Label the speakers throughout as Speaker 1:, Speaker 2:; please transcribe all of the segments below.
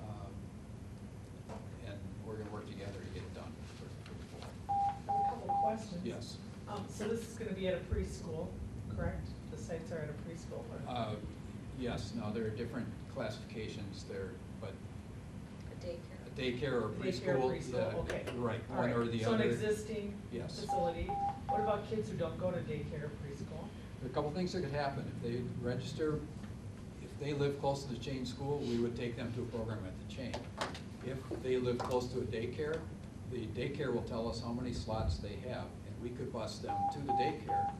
Speaker 1: Um,
Speaker 2: Um, so this is gonna be at a preschool, correct? The sites are at a preschool, or?
Speaker 1: Uh, Yes, no, there are different classifications there, but
Speaker 3: A daycare.
Speaker 1: a daycare or
Speaker 2: Daycare,
Speaker 1: preschool.
Speaker 2: preschool,
Speaker 1: yeah,
Speaker 2: okay.
Speaker 1: Right,
Speaker 2: All
Speaker 1: one
Speaker 2: right.
Speaker 1: or the
Speaker 2: So
Speaker 1: other.
Speaker 2: an existing
Speaker 1: Yes.
Speaker 2: facility. What about kids who don't go to daycare or preschool?
Speaker 1: There are a couple things that could happen. If they register, if they live close to the chain school, we would take them to a program at the chain. If they live close to a daycare, the daycare will tell us how many slots they have, and we could bus them to the daycare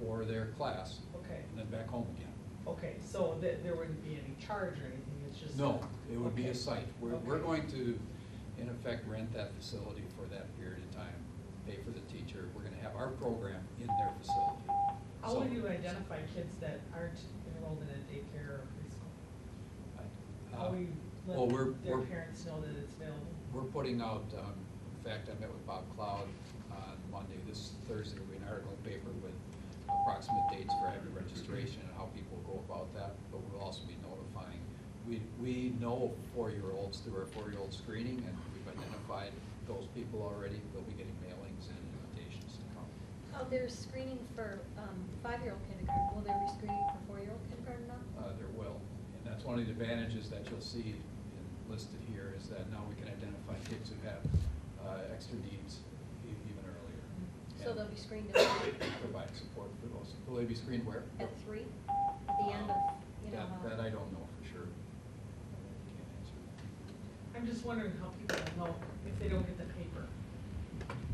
Speaker 1: for their class,
Speaker 2: Okay,
Speaker 1: and then back home again.
Speaker 2: okay, so there, there wouldn't be any charge or anything, it's just.
Speaker 1: No, it would be
Speaker 2: Okay.
Speaker 1: a site. We're, we're
Speaker 2: Okay.
Speaker 1: going to, in effect, rent that facility for that period of time, pay for the teacher. We're gonna have our program in their facility.
Speaker 2: How would
Speaker 1: So-
Speaker 2: you identify kids that aren't enrolled in a daycare or preschool?
Speaker 1: I-
Speaker 2: How
Speaker 1: uh,
Speaker 2: will you
Speaker 1: Well, we're,
Speaker 2: let their
Speaker 1: we're,
Speaker 2: parents know that it's available?
Speaker 1: we're putting out, um, in fact, I met with Bob Cloud on Monday, this Thursday, we had an article in the paper with approximate dates for every registration and how people go about that, but we'll also be notifying. We, we know four-year-olds through our four-year-old screening, and we've identified those people already, they'll be getting mailings and invitations to come.
Speaker 3: Oh, they're screening for um, five-year-old kindergarten. Will they be screening for four-year-old kindergarten now?
Speaker 1: Uh, there will, and that's one of the advantages that you'll see in- listed here, is that now we can identify kids who have, uh, extra needs e- even earlier.
Speaker 3: So
Speaker 1: And-
Speaker 3: they'll be screened at
Speaker 1: provide support for those. Will they be screened where?
Speaker 3: at three, at the end of, you know. uh,
Speaker 1: That-
Speaker 3: how-
Speaker 1: That I don't know for sure. Can't answer that.
Speaker 2: I'm just wondering how people will know if they don't get the paper.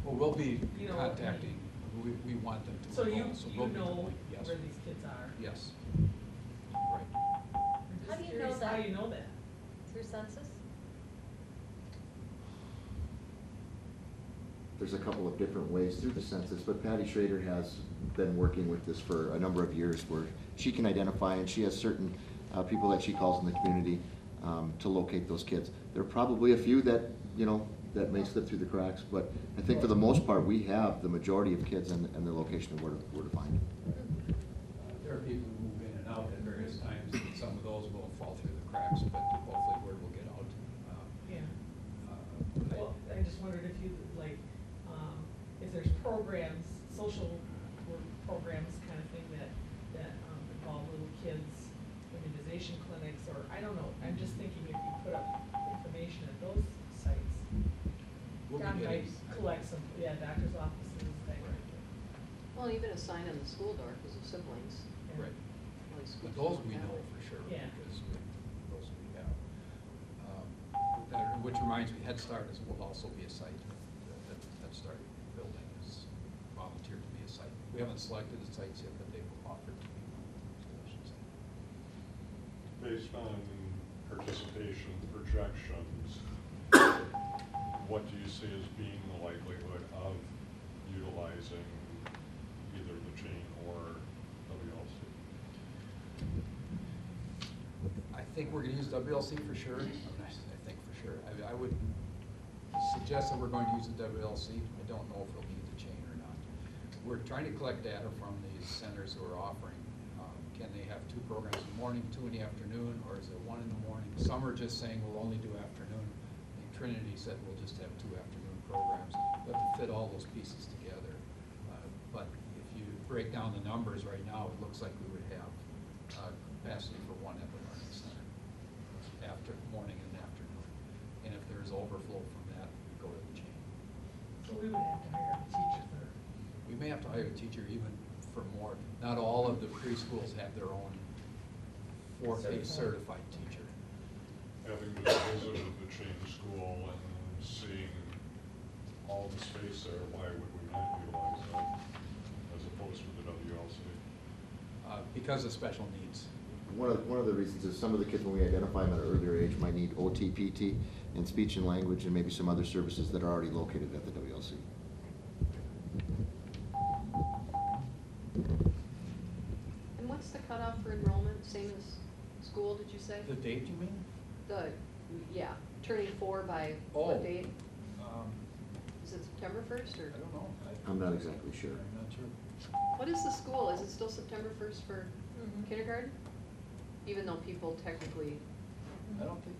Speaker 1: Well, we'll be
Speaker 2: You know,
Speaker 1: contacting, we, we want them to.
Speaker 2: So you,
Speaker 1: enroll, so
Speaker 2: you
Speaker 1: we'll be
Speaker 2: know
Speaker 1: doing- Yes,
Speaker 2: where these kids are?
Speaker 1: yes. Right.
Speaker 2: I'm
Speaker 3: How
Speaker 2: just
Speaker 3: do you know
Speaker 2: curious how
Speaker 3: that?
Speaker 2: you know that?
Speaker 3: Through census?
Speaker 4: There's a couple of different ways through the census, but Patty Schrader has been working with this for a number of years where she can identify and she has certain uh, people that she calls in the community um, to locate those kids. There are probably a few that, you know, that may slip through the cracks, but I think for the most part, we have the majority of kids and, and the location of where to, where to find them.
Speaker 1: Uh, There are people who move in and out at various times, and some of those will fall through the cracks, but hopefully word will get out. Uh,
Speaker 2: Yeah.
Speaker 1: uh, I-
Speaker 2: Well, I just wondered if you, like, um, if there's programs, social work programs kind of thing that, that um, involve little kids, immunization clinics, or, I don't know, I'm just thinking if you put up information at those sites,
Speaker 1: We'll be
Speaker 2: you might
Speaker 1: getting-
Speaker 2: collect some, yeah, doctor's offices, that kind of
Speaker 1: Right.
Speaker 2: thing.
Speaker 5: Well, even a sign on the school door, because of siblings,
Speaker 2: Yeah.
Speaker 1: Right.
Speaker 5: like schools.
Speaker 1: But those we
Speaker 5: don't have
Speaker 1: know
Speaker 5: it.
Speaker 1: for sure,
Speaker 2: Yeah.
Speaker 1: because we- those we have. Um, that- Which reminds me, Head Start is, will also be a site, that that Head Start building is volunteered to be a site. We haven't selected the sites yet, but they've offered to be one of the solutions.
Speaker 6: Based on participation projections, what do you see as being the likelihood of utilizing either the chain or WLC?
Speaker 1: I think we're gonna use WLC for sure, I mean, I s- I think for sure. I, I would suggest that we're going to use the WLC, I don't know if it'll need the chain or not. We're trying to collect data from these centers who are offering, um, can they have two programs in the morning, two in the afternoon, or is it one in the morning? Some are just saying we'll only do afternoon, I think Trinity said we'll just have two afternoon programs, we have to fit all those pieces together. Uh, But if you break down the numbers right now, it looks like we would have uh, capacity for one at the learning center after, morning and afternoon. And if there's overflow from that, we go to the chain.
Speaker 2: So we would have to hire a teacher for,
Speaker 1: We may have to hire a teacher even for more. Not all of the preschools have their own four-day
Speaker 2: Certified.
Speaker 1: certified teacher.
Speaker 6: Having just visited the chain school and seeing all the space there, why would we not utilize that as opposed to the WLC?
Speaker 1: uh, Because of special needs.
Speaker 4: One of, one of the reasons is some of the kids, when we identify them at an earlier age, might need OT, PT, and speech and language, and maybe some other services that are already located at the WLC.
Speaker 5: And what's the cutoff for enrollment, same as school, did you say?
Speaker 1: The date, you mean?
Speaker 5: The, yeah, turning four by
Speaker 1: Oh.
Speaker 5: what date?
Speaker 1: Um,
Speaker 5: Is it September first,
Speaker 1: I
Speaker 5: or
Speaker 1: don't know. I-
Speaker 4: I'm not exactly sure.
Speaker 1: I'm not sure.
Speaker 5: what is the school, is it still September first for
Speaker 3: Mhm.
Speaker 5: kindergarten? Even though people technically
Speaker 1: I don't think,